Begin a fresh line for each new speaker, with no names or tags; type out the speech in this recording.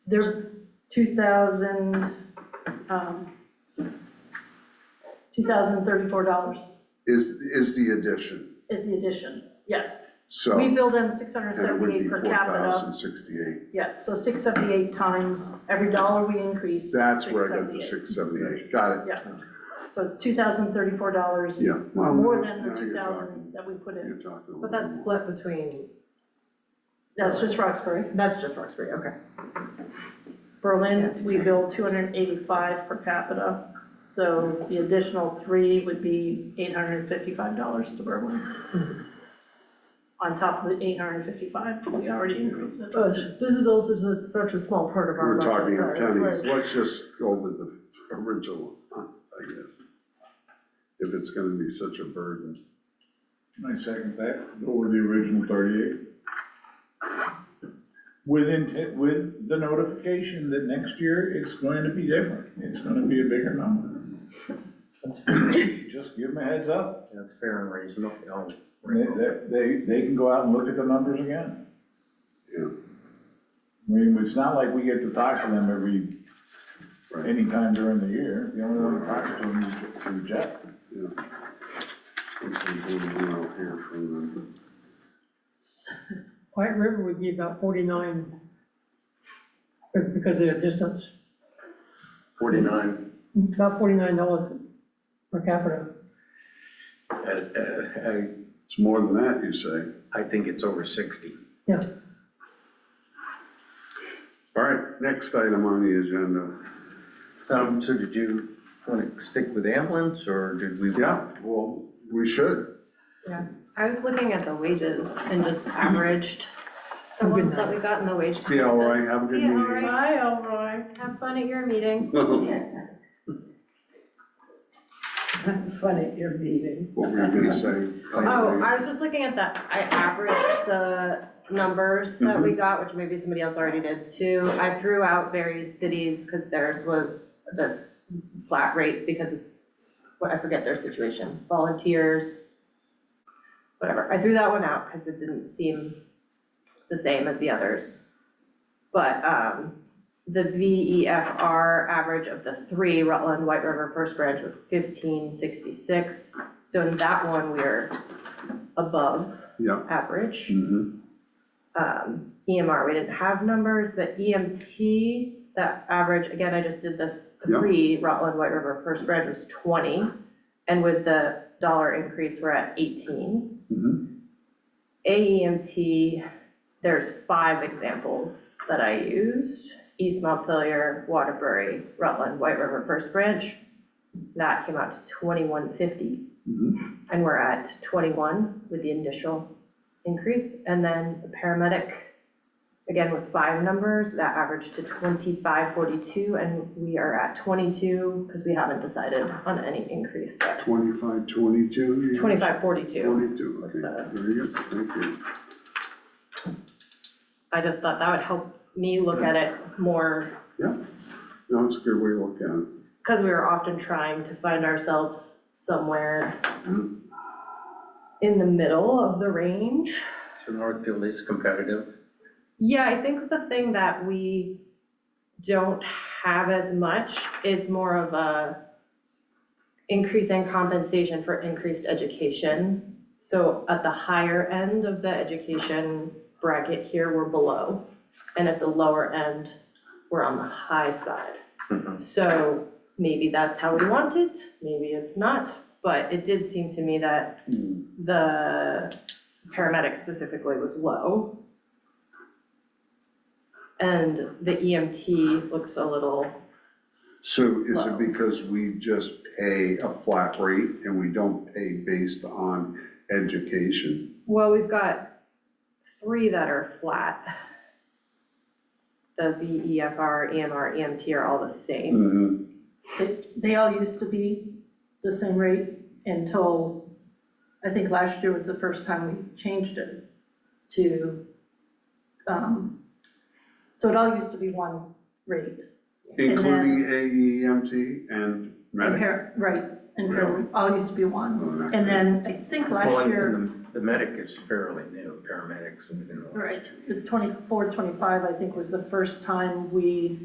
They're 2,000, um, $2,034
is, is the addition,
is the addition, yes.
so.
We bill them
And it would be
678 per
four
capita.
thousand sixty-eight.
Yeah, so 678 times, every dollar we increase. is
That's where I got the
678.
six seventy-eight, got it.
Yeah. So it's $2,034
Yeah. well,
more than the
now you're
2,000
talking-
that we put
You're
in.
talking. a
But
little
that's
more.
split between,
That's just Roxbury.
that's just Roxbury, okay.
Berlin, we bill 285 per capita, so the additional three would be $855 to Berlin. On top of the 855, we already increased it.
Oh, this is also su- such a small part of
We're talking in
budget, right?
pennies, let's just go with the original, I guess. If it's gonna be such a burden.
I second that, go with the original thirty-eight. With intent, with the notification that next year it's going to be different, it's gonna be a bigger number.
That's fair,
Just give them a heads up,
that's fair and reasonable, you know.
they, they, they can go out and look at the numbers again.
Yeah.
I mean, it's not like we get to talk to them every,
Right.
anytime during the year, the only one we talk to them is to Jeff.
Yeah. Looks like we're going out here from
White River would be about forty-nine be- because of the distance,
Forty-nine,
about forty-nine dollars per capita.
uh, uh,
the- It's more than that, you say.
I, I think it's over sixty.
Yeah,
All right, next item on the agenda.
So, so did you want to stick with ambulance, or did we?
Yeah, well, we should.
Yeah, I was looking at the wages and just averaged the
Good
ones that we got in the wage.
See how I have a good
See how
meeting.
Bye, Elroy.
comparison. Have fun at your meeting.
Uh-huh.
Have fun at your meeting.
What were you gonna say?
Oh, I was just looking at that, I averaged the numbers that we got, which maybe somebody else already did too. I threw out various cities because theirs was this flat rate because it's, what, I forget their situation, volunteers, whatever. I threw that one out because it didn't seem the same as the others. But, um, the VEFR average of the three, Rutland, White River, First Branch was fifteen sixty-six. So in that one, we're above
Yeah.
average.
Mhm.
Um, EMR, we didn't have numbers, the E EMT, that average, again, I just did the
Yeah.
three, Rutland, White River, First Branch was twenty. And with the dollar increase, we're at eighteen.
Mhm.
AEMT, there's five examples that I used. East Montpelier, Waterbury, Rutland, White River, First Branch. That came out to twenty-one fifty,
Mhm.
and we're at twenty-one with the initial increase. And then the paramedic, again, was five numbers, that averaged to twenty-five forty-two, and we are at twenty-two, because we haven't decided on any increase there.
Twenty-five, twenty-two? you-
Twenty-five forty-two.
Twenty-two, okay,
What's
very good, thank you.
I just thought that would help me look at it more
No, it's a good way to look at it.
because we were often trying to find ourselves somewhere in the middle of the range.
So Northfield is competitive.
Yeah, I think the thing that we don't have as much is more of a increase in compensation for increased education. So at the higher end of the education bracket here, we're below. And at the lower end, we're on the high side.
Mhm.
So maybe that's how we want it, maybe it's not, but it did seem to me that the paramedic specifically was low. And the EMT looks a little,
So is it
Wow.
because we just pay a flat rate and we don't pay based on education?
well, we've got three that are flat. The E VEFR, EMR, EMT E are all the same.
Mm-hmm.
They- They all used to be the same rate until, I think last year was the first time we changed it to, um, so it all used to be one rate. And
Including AEMT and
And
medic.
par- Right, and par- all used to be one.
Oh, not
And
good.
then I think last
Well, and-
year,
and The medic is fairly new, paramedics within the last
Right, the 24, 25, I think, was the first time we